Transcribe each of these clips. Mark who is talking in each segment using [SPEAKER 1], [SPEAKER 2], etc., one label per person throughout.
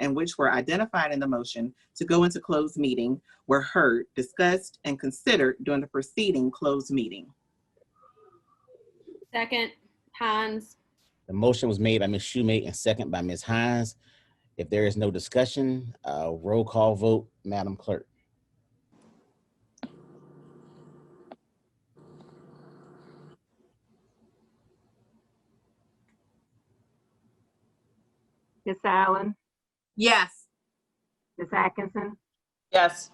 [SPEAKER 1] and which were identified in the motion to go into closed meeting were heard, discussed, and considered during the preceding closed meeting.
[SPEAKER 2] Second, Hans.
[SPEAKER 3] The motion was made by Ms. Schumate and second by Ms. Hines. If there is no discussion, uh, roll call vote, Madam Clerk.
[SPEAKER 4] Ms. Allen,
[SPEAKER 5] Yes.
[SPEAKER 4] Ms. Atkinson,
[SPEAKER 5] Yes.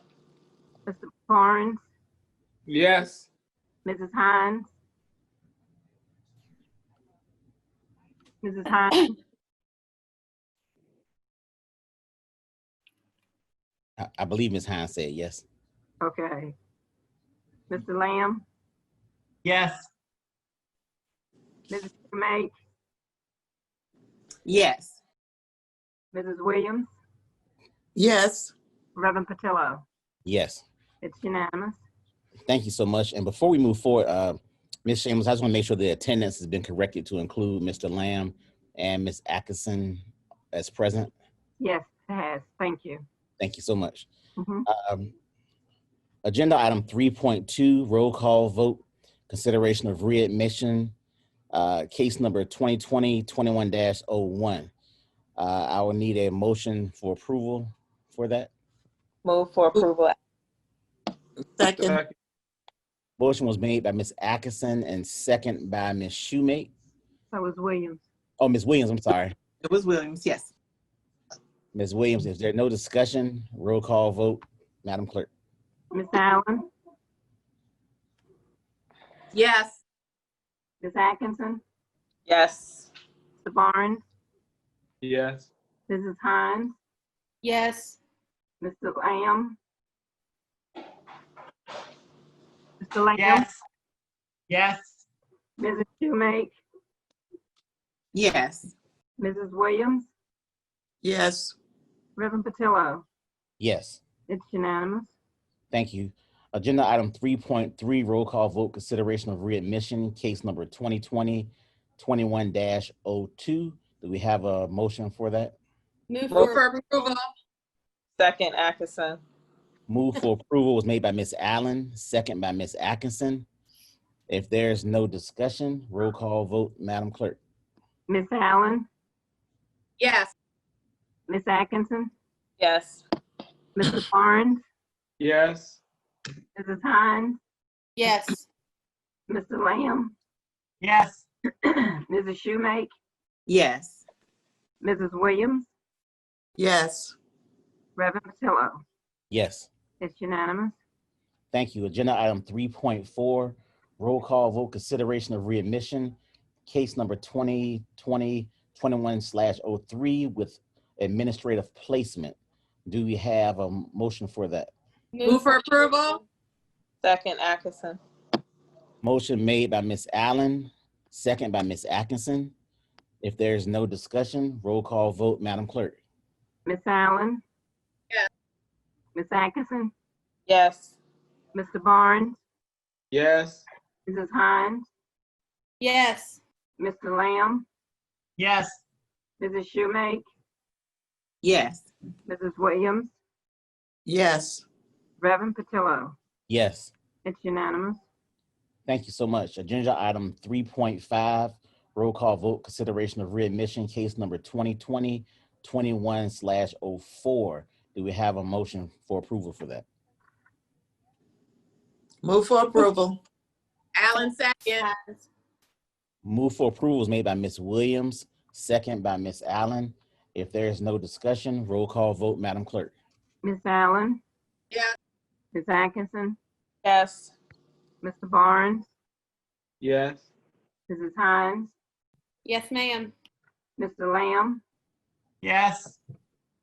[SPEAKER 4] Mr. Barnes,
[SPEAKER 6] Yes.
[SPEAKER 4] Mrs. Hines. Mrs. Hines,
[SPEAKER 3] I, I believe Ms. Hines said yes.
[SPEAKER 4] okay. Mr. Lamb,
[SPEAKER 5] Yes.
[SPEAKER 4] Mrs. Schumate,
[SPEAKER 1] Yes.
[SPEAKER 4] Mrs. Williams,
[SPEAKER 5] Yes.
[SPEAKER 4] Reverend Patillo.
[SPEAKER 3] Yes.
[SPEAKER 4] It's unanimous.
[SPEAKER 3] Thank you so much. And before we move forward, uh, Ms. Shameless, I just want to make sure the attendance has been corrected to include Mr. Lamb and Ms. Atkinson as present.
[SPEAKER 4] Yes, it has. Thank you.
[SPEAKER 3] Thank you so much.
[SPEAKER 4] Mhm.
[SPEAKER 3] Um, Agenda item three point two, roll call vote, consideration of readmission, uh, case number 2020 21 dash oh one. Uh, I will need a motion for approval for that.
[SPEAKER 7] Move for approval.
[SPEAKER 6] Uh,
[SPEAKER 5] Second.
[SPEAKER 3] Motion was made by Ms. Atkinson and second by Ms. Schumate.
[SPEAKER 4] So is Williams.
[SPEAKER 3] Oh, Ms. Williams, I'm sorry.
[SPEAKER 1] It was Williams, yes.
[SPEAKER 3] Ms. Williams, if there's no discussion, roll call vote, Madam Clerk.
[SPEAKER 4] Ms. Allen,
[SPEAKER 5] Yes.
[SPEAKER 4] Ms. Atkinson,
[SPEAKER 7] Yes.
[SPEAKER 4] Mr. Barnes,
[SPEAKER 6] Yes.
[SPEAKER 4] Mrs. Hines,
[SPEAKER 2] Yes.
[SPEAKER 4] Mr. Lamb. Mr. Lamb,
[SPEAKER 5] Yes.
[SPEAKER 4] Mrs. Schumate,
[SPEAKER 1] Yes.
[SPEAKER 4] Mrs. Williams,
[SPEAKER 5] Yes.
[SPEAKER 4] Reverend Patillo.
[SPEAKER 3] Yes,
[SPEAKER 4] It's unanimous.
[SPEAKER 3] thank you. Agenda item three point three, roll call vote, consideration of readmission, case number 2020 21 dash oh two. Do we have a motion for that?
[SPEAKER 2] Move
[SPEAKER 7] Move
[SPEAKER 2] for,
[SPEAKER 5] approval.
[SPEAKER 7] Second Atkinson.
[SPEAKER 3] Move for approval was made by Ms. Allen, second by Ms. Atkinson. If there's no discussion, roll call vote, Madam Clerk.
[SPEAKER 4] Miss Allen,
[SPEAKER 5] Yes.
[SPEAKER 4] Miss Atkinson,
[SPEAKER 7] Yes.
[SPEAKER 4] Mr. Barnes,
[SPEAKER 6] Yes.
[SPEAKER 4] Mrs. Hines,
[SPEAKER 2] yes.
[SPEAKER 4] Mr. Lamb,
[SPEAKER 5] Yes.
[SPEAKER 4] Mrs. Schumake,
[SPEAKER 1] Yes.
[SPEAKER 4] Mrs. Williams,
[SPEAKER 5] Yes.
[SPEAKER 4] Reverend Patillo.
[SPEAKER 3] Yes.
[SPEAKER 4] It's unanimous.
[SPEAKER 3] Thank you. Agenda item three point four, roll call vote consideration of readmission, case number 2020 21 slash oh three with administrative placement. Do we have a motion for that?
[SPEAKER 5] Move for approval.
[SPEAKER 7] Second Atkinson.
[SPEAKER 3] Motion made by Ms. Allen, second by Ms. Atkinson. If there's no discussion, roll call vote, Madam Clerk.
[SPEAKER 4] Miss Allen.
[SPEAKER 5] Yes.
[SPEAKER 4] Miss Atkinson,
[SPEAKER 7] Yes.
[SPEAKER 4] Mr. Barnes,
[SPEAKER 6] Yes.
[SPEAKER 4] Mrs. Hines,
[SPEAKER 2] Yes.
[SPEAKER 4] Mr. Lamb,
[SPEAKER 5] Yes.
[SPEAKER 4] Mrs. Schumake,
[SPEAKER 1] Yes.
[SPEAKER 4] Mrs. Williams,
[SPEAKER 5] Yes.
[SPEAKER 4] Reverend Patillo.
[SPEAKER 3] Yes.
[SPEAKER 4] It's unanimous.
[SPEAKER 3] Thank you so much. Agenda item three point five, roll call vote, consideration of readmission, case number 2020 21 slash oh four. Do we have a motion for approval for that?
[SPEAKER 5] Move for approval. Alan second.
[SPEAKER 2] Hans.
[SPEAKER 3] Move for approval is made by Ms. Williams, second by Ms. Allen. If there is no discussion, roll call vote, Madam Clerk.
[SPEAKER 4] Miss Allen.
[SPEAKER 5] Yes.
[SPEAKER 4] Miss Atkinson,
[SPEAKER 7] Yes.
[SPEAKER 4] Mr. Barnes,
[SPEAKER 6] Yes.
[SPEAKER 4] Mrs. Hines,
[SPEAKER 2] Yes, ma'am.
[SPEAKER 4] Mr. Lamb,
[SPEAKER 5] Yes.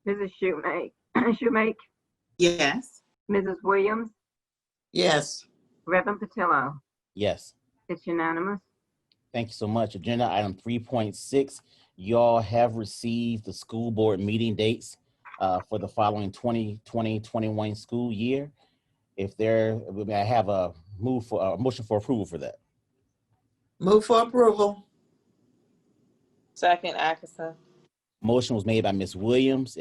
[SPEAKER 4] Mrs. Schumake, Schumake,
[SPEAKER 1] Yes.
[SPEAKER 4] Mrs. Williams,
[SPEAKER 5] Yes.
[SPEAKER 4] Reverend Patillo.
[SPEAKER 3] Yes.
[SPEAKER 4] It's unanimous.
[SPEAKER 3] Thank you so much. Agenda item three point six, y'all have received the school board meeting dates uh, for the following 2020-21 school year. If there, may I have a move for, a motion for approval for that?
[SPEAKER 5] Move for approval.
[SPEAKER 7] Second Atkinson.
[SPEAKER 3] Motion was made by Ms. Williams. It